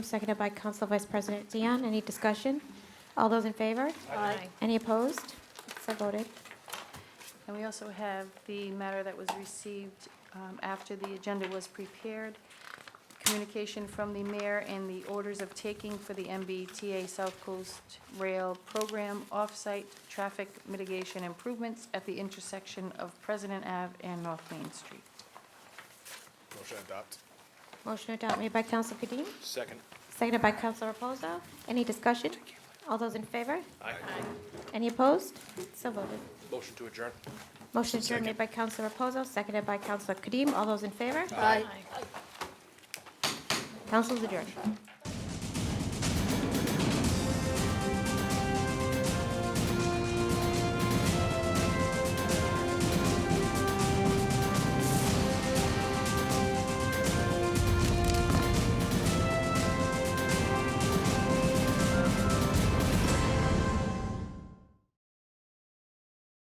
Seconded by Council Vice President Dion. Any discussion? All those in favor? Aye. Any opposed? So voted. And we also have the matter that was received um, after the agenda was prepared, communication from the mayor and the orders of taking for the MBTA South Coast Rail Program Offsite Traffic Mitigation Improvements at the intersection of President Ave and North Main Street. Motion to adopt. Motion to adopt made by Council Kadim, Second. seconded by Council Reposo. Any discussion? All those in favor? Aye. Any opposed? So voted. Motion to adjourn. Motion adjourned made by Council Reposo, seconded by Council Kadim. All those in favor? Aye. Council's adjourned.